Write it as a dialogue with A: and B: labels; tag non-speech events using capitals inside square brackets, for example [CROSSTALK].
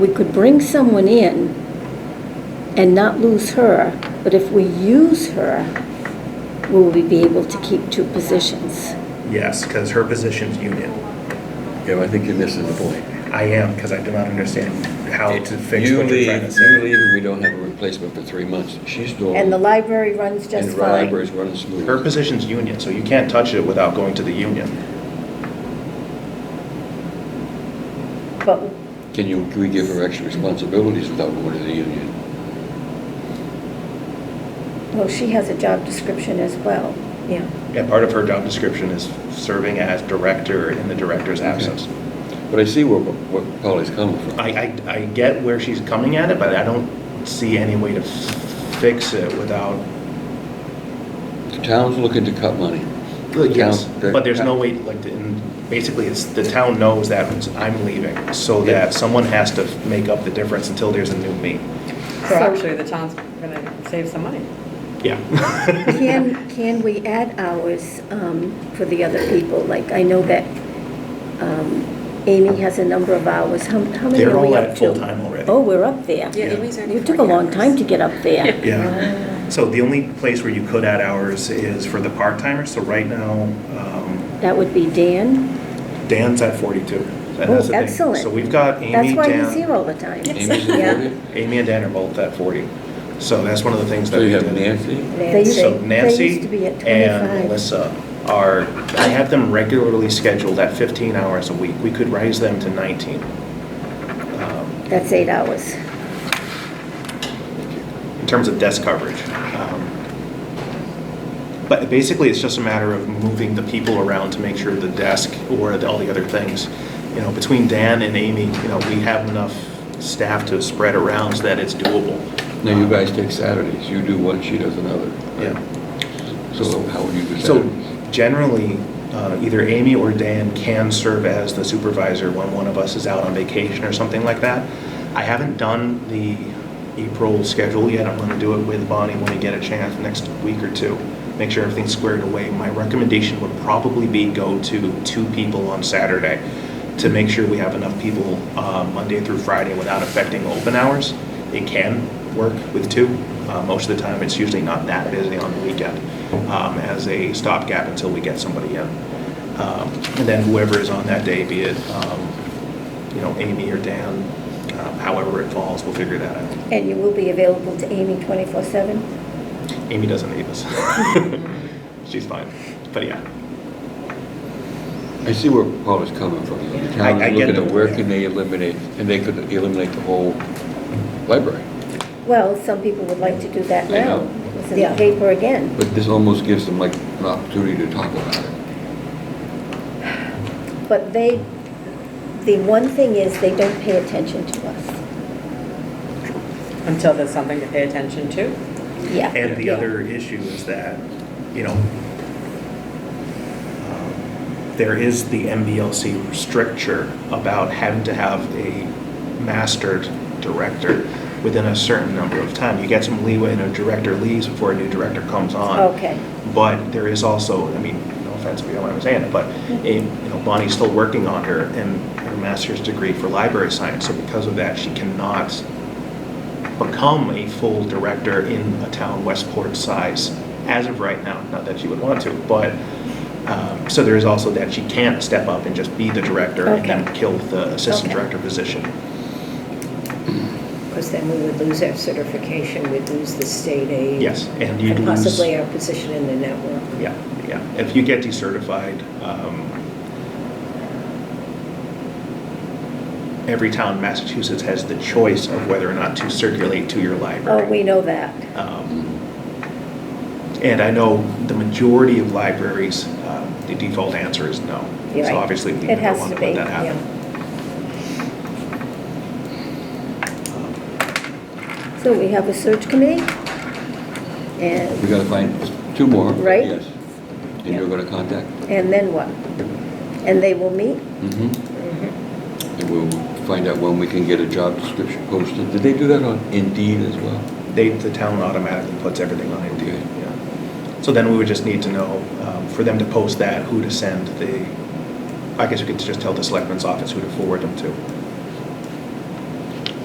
A: We could bring someone in and not lose her, but if we use her, will we be able to keep two positions?
B: Yes, because her position's union.
C: Yeah, but I think you're missing the point.
B: I am, because I do not understand how to fix
C: You
B: what you're trying to
C: leave- You
B: say.
C: leave and we don't have a replacement for three months. She's doing.
A: And the library runs
C: And
A: just
C: the
A: fine.
C: library's running smooth.
B: Her position's union, so you can't touch it without going to the union.
A: But
C: Can you, can we give her extra responsibilities without going to the union?
A: Well, she has a job description as well. Yeah.
B: And part of her job description is serving as director in the director's absence.
C: But I see where, what Polly's coming from.
B: I, I, I get where she's coming at it, but I don't see any way to fix it without,
C: The town's looking to cut money.
B: yes,
C: Town- the-
B: but there's no way, like, and basically, it's, the town knows that I'm leaving, so that someone has to make up the difference until there's a new me.
D: So
A: Correct.
D: actually, the town's going to save some money.
B: Yeah.
A: [LAUGHS] Can, can we add hours um, for the other people? Like, I know that um, Amy has a number of hours. How how many
B: They're
A: are
B: all
A: we up
B: at
A: to?
B: full-time already.
A: Oh, we're up there.
B: Yeah.
A: You took a long time to get up there.
B: Yeah, so the only place where you could add hours is for the part-timers, so right now, um,
A: That would be Dan.
B: Dan's at 42. and that's the
A: Oh,
B: thing.
A: excellent.
B: So we've got Amy,
A: That's why he's here
B: Dan,
A: all the time.
C: Amy's in
A: Yeah.
C: there?
B: Amy and Dan are both at 40. So that's one of the things that.
C: So you
B: we
C: have
B: did.
C: Nancy?
A: They used-
B: So
A: They
B: Nancy
A: used to be at 25.
B: and Melissa are, I have them regularly scheduled at 15 hours a week. We could raise them to 19 um,
A: That's eight hours.
B: in terms of desk coverage. Um, But basically, it's just a matter of moving the people around to make sure the desk or all the other things, you know, between Dan and Amy, you know, we have enough staff to spread around so that it's doable.
C: Now, you guys take Saturdays. You do one, she does another.
B: Uh-huh. Yeah.
C: So how would you do
B: So
C: Saturdays?
B: generally, uh, either Amy or Dan can serve as the supervisor when one of us is out on vacation or something like that. I haven't done the April schedule yet. I'm going to do it with Bonnie when we get a chance next week or two. Make sure everything's squared away. My recommendation would probably be go to two people on Saturday to make sure we have enough people uh, Monday through Friday without affecting open hours. It can work with two. Uh, Most of the time, it's usually not that busy on the weekend um, as a stopgap until we get somebody in. Um, And then whoever is on that day, be it, um, you know, Amy or Dan, um, however it falls, we'll figure that out.
A: And you will be available to Amy 24/7?
B: Amy doesn't need us. [LAUGHS] She's fine. But yeah,
C: I see where Paul is coming from. though. The town
B: I- I
C: is
B: get
C: looking
B: the-
C: at where can they eliminate, and they could eliminate the whole library.
A: Well, some people would like to do that
C: I
A: now.
C: know.
A: It's in the paper again.
C: But this almost gives them like an opportunity to talk about it.
A: But they, the one thing is, they don't pay attention to us.
D: Until there's something to pay attention to.
A: Yeah.
B: And the other issue is that, you know, um, there is the MBLC stricture about having to have a mastered director within a certain number of time. You get some leeway and a director leaves before a new director comes on.
A: Okay.
B: But there is also, I mean, no offense, we don't want to say it, but, eh, you know, Bonnie's still working on her and her master's degree for library science, so because of that, she cannot become a full director in a town Westport size as of right now, not that she would want to, but, um, so there is also that she can't step up and just be the director and then
A: Okay.
B: kill the assistant
A: Okay.
B: director position.
E: Because then we would lose our certification, we'd lose the state aid.
B: Yes, and you'd
E: and
B: lose-
E: Possibly our position in the network.
B: Yeah, yeah. If you get decertified, um, every town in Massachusetts has the choice of whether or not to circulate to your library.
A: Oh, we know that.
B: Um, And I know the majority of libraries, uh, the default answer is no.
A: You're
B: So
A: right.
B: obviously, we
A: It
B: never
A: has
B: want
A: to
B: to
A: be,
B: let that happen.
A: So we have a search committee?
C: We
A: And,
C: gotta find two more.
A: Right.
C: Yes. And you're gonna contact?
A: and then what? And they will meet?
C: Mm-hmm. And we'll find out when we can get a job description posted. Did they do that on Indeed as well?
B: They, the town automatically puts everything on Indeed,
C: Okay.
B: yeah. So then we would just need to know, um, for them to post that, who to send the, I guess we could just tell the selectmen's office who to forward them to.